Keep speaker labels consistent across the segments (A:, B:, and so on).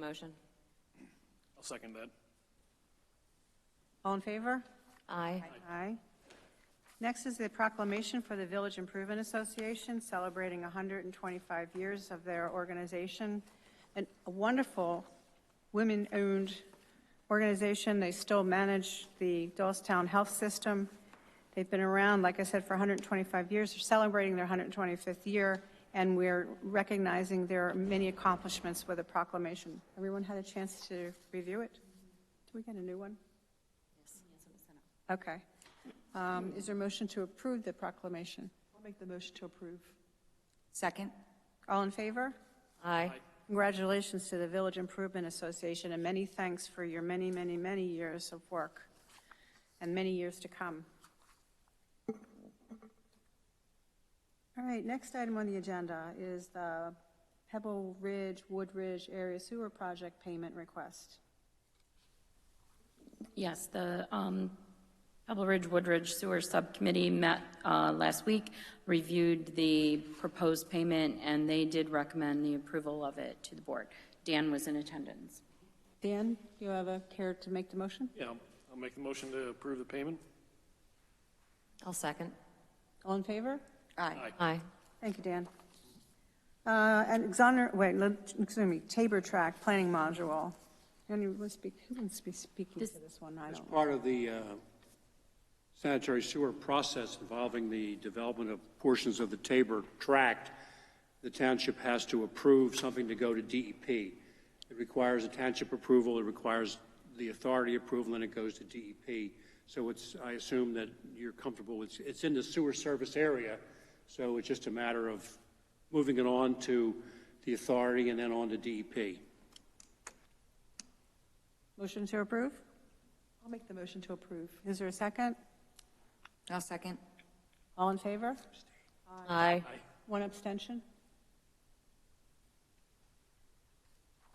A: Motion?
B: I'll second that.
C: All in favor?
A: Aye.
C: Aye. Next is the proclamation for the Village Improvement Association celebrating 125 years of their organization. And a wonderful women-owned organization. They still manage the Doylestown Health System. They've been around, like I said, for 125 years. They're celebrating their 125th year, and we're recognizing their many accomplishments with a proclamation. Everyone had a chance to review it? Do we get a new one? Okay. Um, Is there a motion to approve the proclamation?
D: I'll make the motion to approve.
E: Second?
C: All in favor?
A: Aye.
C: Congratulations to the Village Improvement Association, and many thanks for your many, many, many years of work, and many years to come. All right, next item on the agenda is the Pebble Ridge, Wood Ridge Area Sewer Project Payment Request.
F: Yes, the um, Pebble Ridge Woodridge Sewer Subcommittee met uh, last week, reviewed the proposed payment, and they did recommend the approval of it to the board. Dan was in attendance.
C: Dan, do you have a care to make the motion?
B: Yeah, I'll- I'll make the motion to approve the payment.
A: I'll second.
C: All in favor?
E: Aye.
A: Aye.
C: Thank you, Dan. Uh, And exoner, wait, let- excuse me, Tabor Track Planning Module. Anyone wants to be, who wants to be speaking to this one? I
G: As
C: don't.
G: part of the uh, sanitary sewer process involving the development of portions of the Tabor tract, the township has to approve something to go to DEP. It requires a township approval, it requires the authority approval, and it goes to DEP. So it's, I assume that you're comfortable with, it's in the sewer service area, so it's just a matter of moving it on to the authority and then on to E DEP.
C: Motion to approve?
D: I'll make the motion to approve.
C: Is there a second?
E: I'll second.
C: All in favor?
A: Aye.
C: One abstention?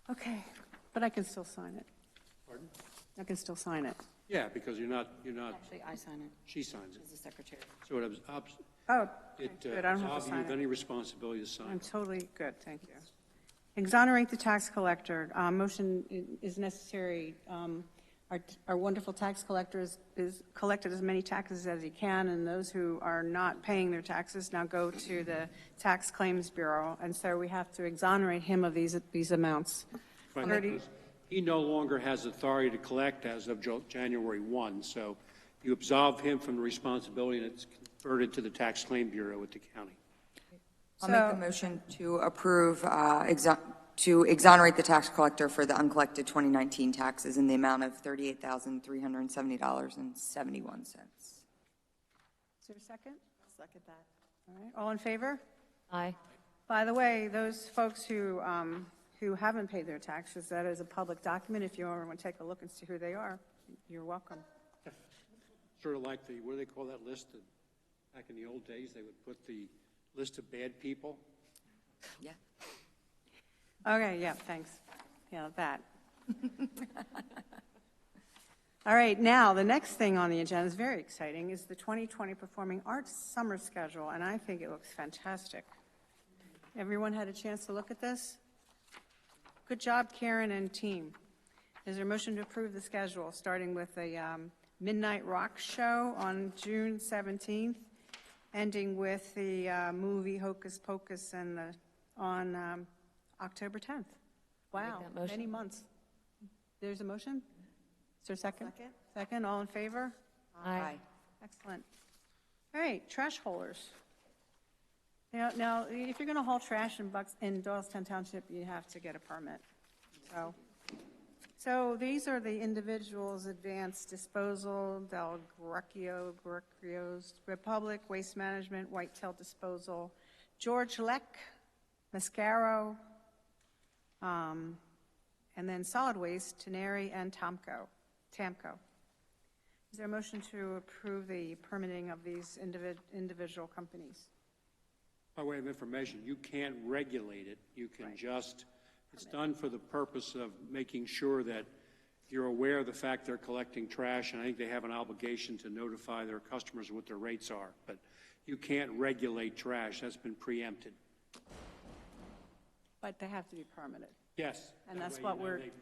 C: Okay, but I can still sign it.
G: Pardon?
C: I can still sign it.
G: Yeah, because you're not, you're not,
F: Actually, I sign it
G: she signs it.
F: as the secretary.
G: So it obs- obs-
C: Oh,
G: it uh,
C: good, I don't have
G: absolves
C: to
G: you
C: sign
G: of
C: it.
G: any responsibility to sign.
C: I'm totally good, thank you. Exonerate the tax collector. Uh, Motion i- is necessary. Um, Our our wonderful tax collector is- is collected as many taxes as he can, and those who are not paying their taxes now go to the Tax Claims Bureau, and so we have to exonerate him of these these amounts.
G: Right.
C: Thirty-
G: He no longer has authority to collect as of Jo- January 1, so you absolve him from the responsibility, and it's converted to the Tax Claim Bureau at the county.
E: I'll make
C: So-
E: the motion to approve, uh, exo- to exonerate the tax collector for the uncollected 2019 taxes in the amount of $38,370.71.
C: Is there a second?
D: Second that.
C: All right, all in favor?
A: Aye.
C: By the way, those folks who, um, who haven't paid their taxes, that is a public document. If you ever want to take a look and see who they are, you're welcome.
G: Sort of like the, what do they call that list? that- Back in the old days, they would put the list of bad people.
E: Yeah.
C: Okay, yeah, thanks. Yeah, that. All right, now, the next thing on the agenda is very exciting, is the 2020 Performing Arts Summer Schedule, and I think it looks fantastic. Everyone had a chance to look at this? Good job, Karen and team. Is there a motion to approve the schedule, starting with the um, Midnight Rock Show on June 17th, ending with the uh, movie Hocus Pocus and the, on um, October 10th? Wow,
A: that motion.
C: many months. There's a motion? Is there a second? Second, all in favor?
A: Aye.
C: Excellent. All right, trash haulers. Now, now, if you're going to haul trash in Bucks, in Doylestown Township, you have to get a permit, so. So these are the individuals, Advanced Disposal, Del Greco, Grecio's Republic, Waste Management, Whitetail Disposal, George Leck, Mascaro, um, and then Solid Waste, Tenary and Tomco, Tamco. Is there a motion to approve the permitting of these individ- individual companies?
G: By way of information, you can't regulate it. You can just, it's done for the purpose of making sure that you're aware of the fact they're collecting trash, and I think they have an obligation to notify their customers what their rates are. But you can't regulate trash. That's been preempted.
C: But they have to be permitted. Yes.
G: And
C: That
G: that's
C: way you
G: what
C: know
G: we're-
C: they-